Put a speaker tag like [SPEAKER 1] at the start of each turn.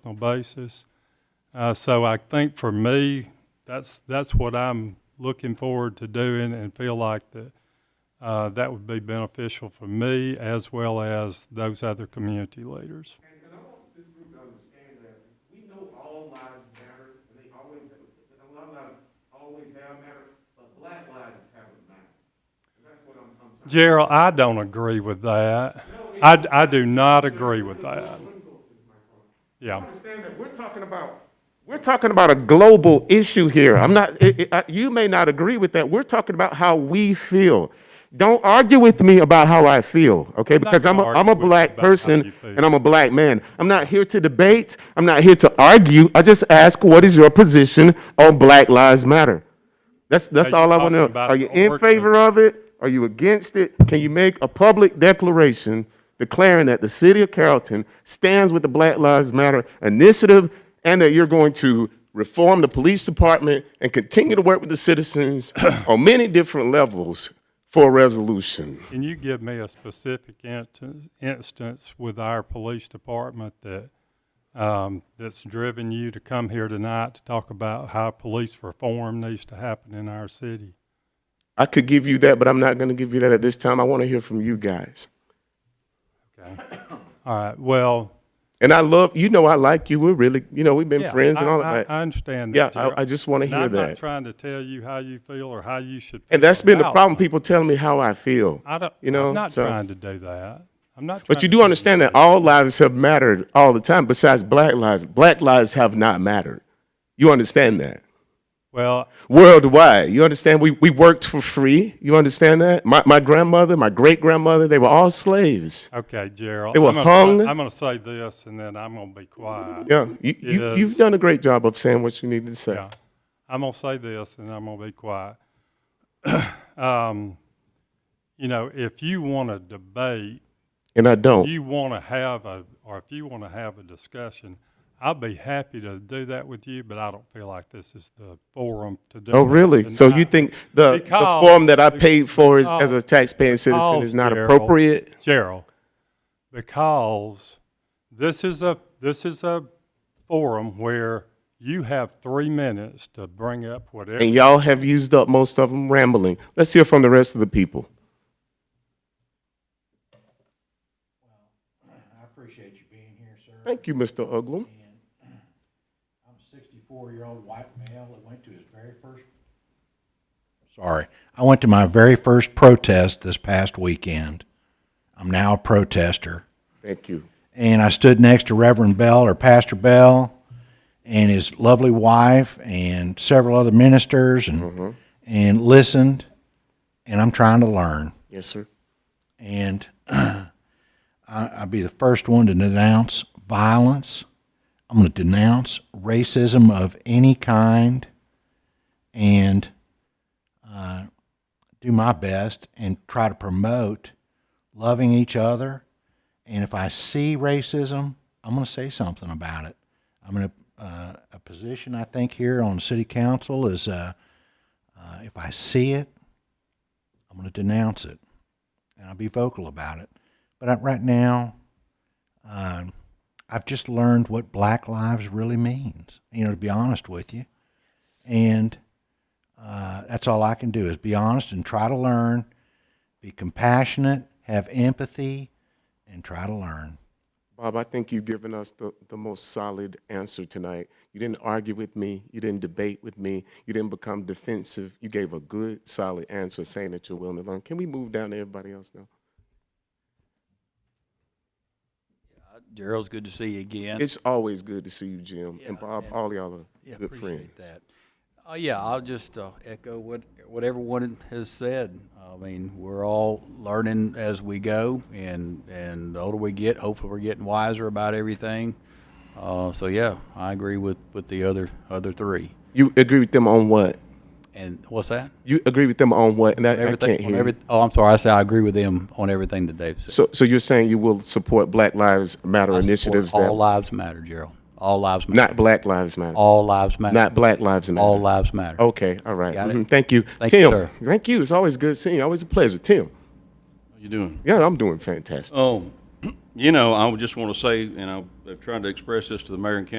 [SPEAKER 1] personal basis. Uh, so I think for me, that's, that's what I'm looking forward to doing and feel like that, uh, that would be beneficial for me as well as those other community leaders.
[SPEAKER 2] And, and I want this group to understand that we know all lives matter, and they always, and a lot of lives always have mattered, but black lives haven't mattered. And that's what I'm, I'm trying.
[SPEAKER 1] Gerald, I don't agree with that. I, I do not agree with that. Yeah.
[SPEAKER 2] Understand that we're talking about, we're talking about a global issue here. I'm not, it, it, I, you may not agree with that. We're talking about how we feel. Don't argue with me about how I feel, okay? Because I'm a,
[SPEAKER 1] gonna
[SPEAKER 2] I'm
[SPEAKER 1] argue
[SPEAKER 2] a
[SPEAKER 1] with you
[SPEAKER 2] black
[SPEAKER 1] about how
[SPEAKER 2] person
[SPEAKER 1] you feel.
[SPEAKER 2] and I'm a black man. I'm not here to debate. I'm not here to argue. I just ask, what is your position on Black Lives Matter? That's, that's
[SPEAKER 1] Are you
[SPEAKER 2] all I want to
[SPEAKER 1] talking
[SPEAKER 2] know.
[SPEAKER 1] about
[SPEAKER 2] Are you
[SPEAKER 1] a
[SPEAKER 2] in
[SPEAKER 1] working-
[SPEAKER 2] favor of it? Are you against it? Can you make a public declaration declaring that the city of Carrollton stands with the Black Lives Matter initiative and that you're going to reform the police department and continue to work with the citizens on many different levels for a resolution?
[SPEAKER 1] Can you give me a specific instance, instance with our police department that, um, that's driven you to come here tonight to talk about how police reform needs to happen in our city?
[SPEAKER 2] I could give you that, but I'm not going to give you that at this time. I want to hear from you guys.
[SPEAKER 1] Okay. All right, well,
[SPEAKER 2] And I love, you know, I like you. We're really, you know, we've been
[SPEAKER 1] yeah,
[SPEAKER 2] friends and
[SPEAKER 1] I-
[SPEAKER 2] all
[SPEAKER 1] I-
[SPEAKER 2] that.
[SPEAKER 1] I understand
[SPEAKER 2] yeah,
[SPEAKER 1] that. Gerald.
[SPEAKER 2] I, I just want to
[SPEAKER 1] And
[SPEAKER 2] hear
[SPEAKER 1] I'm not
[SPEAKER 2] that.
[SPEAKER 1] trying to tell you how you feel or how you should. feel
[SPEAKER 2] And that's been the
[SPEAKER 1] about
[SPEAKER 2] problem.
[SPEAKER 1] it.
[SPEAKER 2] People telling me how I feel.
[SPEAKER 1] I don't,
[SPEAKER 2] you know,
[SPEAKER 1] I'm not
[SPEAKER 2] so-
[SPEAKER 1] trying to do that. I'm not.
[SPEAKER 2] But
[SPEAKER 1] trying to
[SPEAKER 2] you do
[SPEAKER 1] do
[SPEAKER 2] understand that all lives have mattered all the time, besides black lives. Black lives have not mattered. You understand that?
[SPEAKER 1] Well,
[SPEAKER 2] Worldwide. You understand we, we worked for free. You understand that? My, my grandmother, my great grandmother, they were all slaves.
[SPEAKER 1] okay, Gerald.
[SPEAKER 2] They were
[SPEAKER 1] I'm gonna-
[SPEAKER 2] hung.
[SPEAKER 1] I'm going to say this and then I'm going to be quiet.
[SPEAKER 2] Yeah. You, you,
[SPEAKER 1] Yes.
[SPEAKER 2] you've done a great job of saying what you needed to say.
[SPEAKER 1] Yeah. I'm gonna say this and I'm gonna be quiet. um, you know, if you want to debate,
[SPEAKER 2] And I don't.
[SPEAKER 1] you want to have a, or if you want to have a discussion, I'd be happy to do that with you, but I don't feel like this is the forum to do.
[SPEAKER 2] oh,
[SPEAKER 1] that
[SPEAKER 2] really? So you
[SPEAKER 1] tonight.
[SPEAKER 2] think the,
[SPEAKER 1] Because-
[SPEAKER 2] the form that I paid for is,
[SPEAKER 1] because-
[SPEAKER 2] as a taxpaying citizen
[SPEAKER 1] Because,
[SPEAKER 2] is not
[SPEAKER 1] Gerald-
[SPEAKER 2] appropriate?
[SPEAKER 1] Gerald, because this is a, this is a forum where you have three minutes to bring up whatever.
[SPEAKER 2] And y'all have used up most of them rambling. Let's hear from the rest of the people.
[SPEAKER 3] I appreciate you being here, sir.
[SPEAKER 2] Thank you, Mr. Uglum.
[SPEAKER 3] And I'm a sixty-four-year-old white male that went to his very first, sorry, I went to my very first protest this past weekend. I'm now a protester.
[SPEAKER 2] Thank you.
[SPEAKER 3] And I stood next to Reverend Bell or Pastor Bell and his lovely wife and several other ministers and, and listened. And I'm trying to learn.
[SPEAKER 2] Yes, sir.
[SPEAKER 3] and I, I'll be the first one to denounce violence. I'm going to denounce racism of any kind, and uh, do my best and try to promote loving each other. And if I see racism, I'm going to say something about it. I'm in a, uh, a position I think here on city council is uh, uh, if I see it, I'm going to denounce it and I'll be vocal about it. But I, right now, um, I've just learned what Black Lives really means. You know, to be honest with you, and uh, that's all I can do is be honest and try to learn, be compassionate, have empathy, and try to learn.
[SPEAKER 2] Bob, I think you've given us the, the most solid answer tonight. You didn't argue with me. You didn't debate with me. You didn't become defensive. You gave a good, solid answer saying that you're willing to learn. Can we move down to everybody else now?
[SPEAKER 4] Gerald's good to see you again.
[SPEAKER 2] It's always good to see you, Jim. and Bob, all y'all are
[SPEAKER 4] Yeah,
[SPEAKER 2] good
[SPEAKER 4] appreciate
[SPEAKER 2] friends.
[SPEAKER 4] that. Uh, yeah, I'll just uh, echo what, what everyone has said. I mean, we're all learning as we go, and, and the older we get, hopefully we're getting wiser about everything. Uh, so yeah, I agree with, with the other, other three.
[SPEAKER 2] You agree with them on what?
[SPEAKER 4] And what's that?
[SPEAKER 2] You agree with them on what? And I, I
[SPEAKER 4] Everything
[SPEAKER 2] can't
[SPEAKER 4] on
[SPEAKER 2] hear. you.
[SPEAKER 4] every- Oh, I'm sorry, I said I agree with them on everything that they've said.
[SPEAKER 2] So, so you're saying you will support Black Lives Matter
[SPEAKER 4] I support
[SPEAKER 2] initiatives that
[SPEAKER 4] All lives matter, Gerald. All lives matter.
[SPEAKER 2] not Black Lives Matter,
[SPEAKER 4] All lives matter.
[SPEAKER 2] not Black Lives Matter. Oh,
[SPEAKER 4] All lives matter.
[SPEAKER 2] Okay, all right.
[SPEAKER 4] Got it.
[SPEAKER 2] Mhm, Thank you.
[SPEAKER 4] Thank you,
[SPEAKER 2] Tim,
[SPEAKER 4] sir.
[SPEAKER 2] thank you. It's always good seeing you. Always a pleasure. Tim,
[SPEAKER 5] How you doing?
[SPEAKER 2] yeah, I'm doing fantastic.
[SPEAKER 5] Oh, You know, I would just want to say, and I've I've tried to express this to the mayor and council